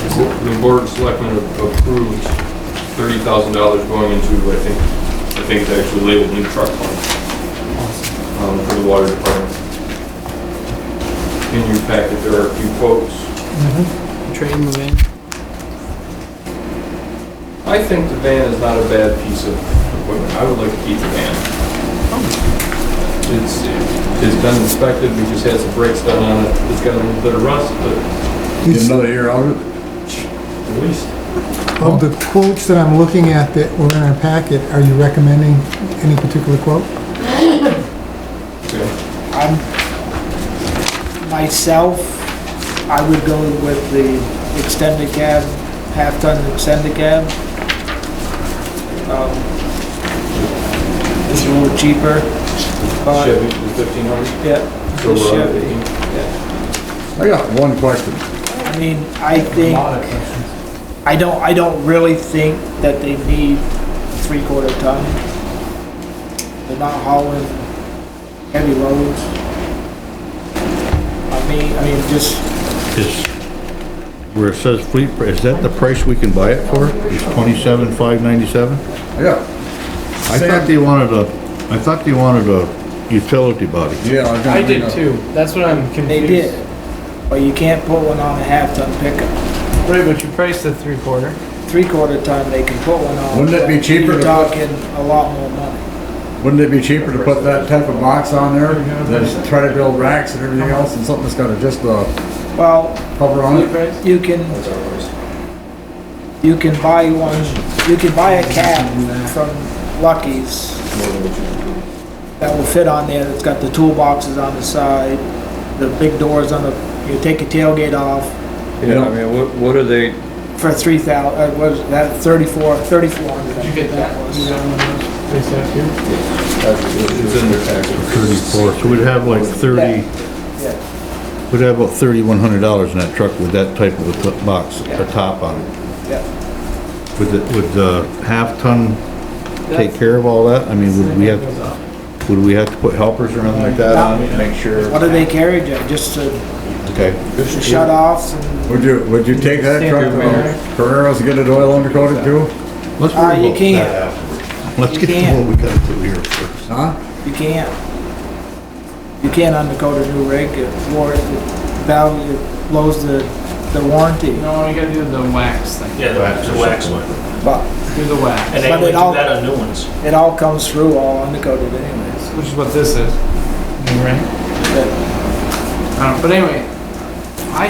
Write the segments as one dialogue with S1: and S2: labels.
S1: the board of selectmen approved thirty thousand dollars going into, I think, I think they actually labeled new truck fund, um, for the water department. In your packet, there are a few quotes.
S2: Trade move in.
S1: I think the van is not a bad piece of equipment. I would like to keep the van. It's, it's been inspected, we just had some brakes done on it. It's got a little bit of rust, but
S3: Get another year out of it?
S1: at least
S4: Of the quotes that I'm looking at that were in our packet, are you recommending any particular quote?
S1: okay.
S2: I'm, myself, I would go with the extended cab, half-ton extended cab. Um, It's a little cheaper, but,
S1: Chevy, uh, the fifteen hundred.
S2: yeah, the Chevy.
S3: I got one question.
S2: I mean, I think, I don't, I don't really think that they need three-quarter ton. They're not hauling heavy loads. I mean, I mean, just,
S3: Is, where it says fleet, pr- is that the price we can buy it for? It's twenty-seven, five ninety-seven?
S5: Yeah,
S3: I thought they wanted a, I thought they wanted a utility body.
S5: yeah. was gonna
S6: I
S5: bring
S6: did
S5: up-
S6: too. That's what I'm confused.
S2: they did. But you can't put one on a half-ton pickup.
S6: Right, but you priced the three quarter.
S2: Three-quarter ton, they can put one on.
S5: Wouldn't it be
S2: but
S5: cheaper
S2: You're
S5: to put-
S2: talking a lot more money.
S5: Wouldn't it be cheaper to put that type of box on there than to try to build racks and everything else and something that's got a just a
S2: Well,
S5: cover on it?
S2: you can, you can buy one, you can buy a cab from Lucky's that will fit on there, it's got the toolboxes on the side, the big doors on the, you take your tailgate off
S1: Yeah, I mean, what, what are they,
S2: for three thou, uh, what was that, thirty-four, thirty-four hundred?
S6: Did you get that one? You got one of those? They sent you?
S1: it's in their package.
S3: Thirty-four, so we'd have like thirty,
S2: Yeah.
S3: we'd have about thirty-one hundred dollars in that truck with that type of a t- box, a top on it.
S2: Yeah,
S3: Would the, would the half-ton take care of all that? I mean, would we have, would we have to put helpers or anything like that on it, to make sure?
S2: what do they carry, Joe, just the
S3: Okay.
S2: the shut-offs and,
S5: Would you, would you take that truck
S6: Standard wear.
S5: to Carreras and get it oil undercoated too?
S3: Let's
S2: Ah,
S3: worry
S2: you
S3: about
S2: can't.
S3: that after. Let's
S2: You
S3: get to
S2: can't.
S3: what we gotta do here first.
S5: Huh?
S2: you can't. You can't undercoat a new rig, it war, it value, it blows the, the warranty,
S6: No, you gotta do the wax thing.
S7: Yeah,
S3: Wax
S7: the
S3: or
S7: the wax one.
S2: but
S6: Do the wax,
S7: And they
S2: But
S7: only
S2: it
S7: do
S2: all-
S7: that on new ones.
S2: it all comes through all undercoated anyways.
S6: which is what this is. Right?
S2: But
S6: I don't, but anyway, I.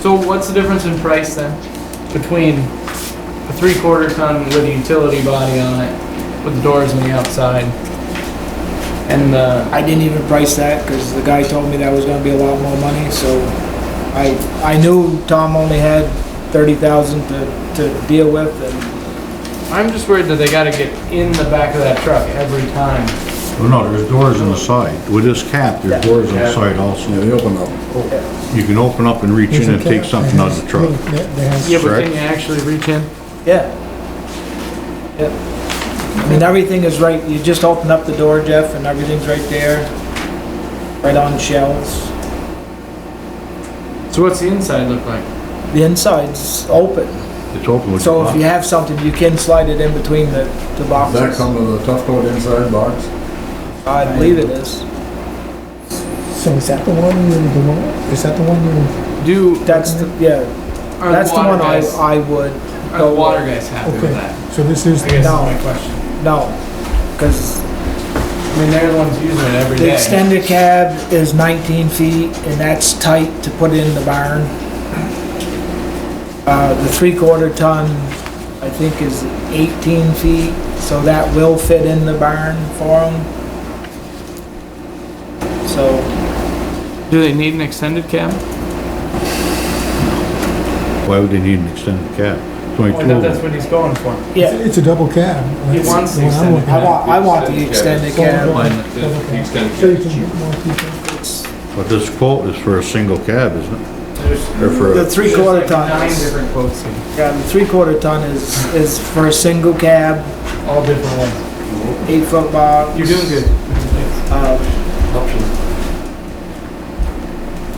S6: So what's the difference in price then between a three quarter ton with a utility body on it, with the doors on the outside, and the
S2: I didn't even price that, cause the guy told me that was gonna be a lot more money, so I, I knew Tom only had thirty thousand to, to deal with and
S6: I'm just worried that they gotta get in the back of that truck every time.
S3: Well, no, there's doors on the side. With this cap,
S2: Yeah.
S3: there's doors on
S6: Yeah.
S3: the side also.
S5: Yeah, they open up.
S3: You can open up and reach in and take something out of the truck.
S4: That- that has-
S6: Yeah, but
S3: Correct.
S6: can you actually reach in?
S2: Yeah. Yep. I mean, everything is right, you just open up the door, Jeff, and everything's right there, right on shelves.
S6: So what's the inside look like?
S2: The inside's open,
S3: It's open with
S2: so if you
S3: the
S2: have something, you can slide it in between the, the
S5: Does that
S2: boxes.
S5: come with a tough coat inside box?
S2: I believe it is.
S4: So is that the one you, the one, is that the one you,
S6: Do
S2: That's the, yeah,
S6: are
S2: that's the
S6: water
S2: one I,
S6: guys,
S2: I would
S6: are the
S2: go
S6: water
S2: with.
S6: guys happy with
S4: Okay.
S6: that?
S4: so this is,
S6: I guess
S2: No.
S6: that's my question.
S2: No, cause
S6: I mean, they're the ones using it every day.
S2: the extended cab is nineteen feet and that's tight to put in the barn. Uh, the three-quarter ton, I think, is eighteen feet, so that will fit in the barn for them. So,
S6: Do they need an extended cab?
S3: top. Why would they need an extended cap? It's only
S2: Oh,
S6: Well, I
S3: two
S6: thought
S3: of
S6: that's
S3: them.
S6: what he's going for.
S2: yeah,
S4: it's a double cab.
S6: He
S4: That's
S6: wants the
S4: one I'm
S6: extended
S4: looking
S2: I
S4: at.
S2: want, I want the extended cab.
S1: Mine, the the extended
S4: So you
S1: package.
S4: can get more people.
S3: But this quote is for a single cab, isn't it?
S6: There's
S3: Or for,
S2: The
S3: a-
S2: three-quarter
S6: there's like Nine
S2: ton is,
S6: different quotes here,
S2: yeah, the three-quarter ton is, is for a single cab,
S6: all different ones.
S2: eight-foot box.
S6: You're doing good.
S2: Uh,
S1: Options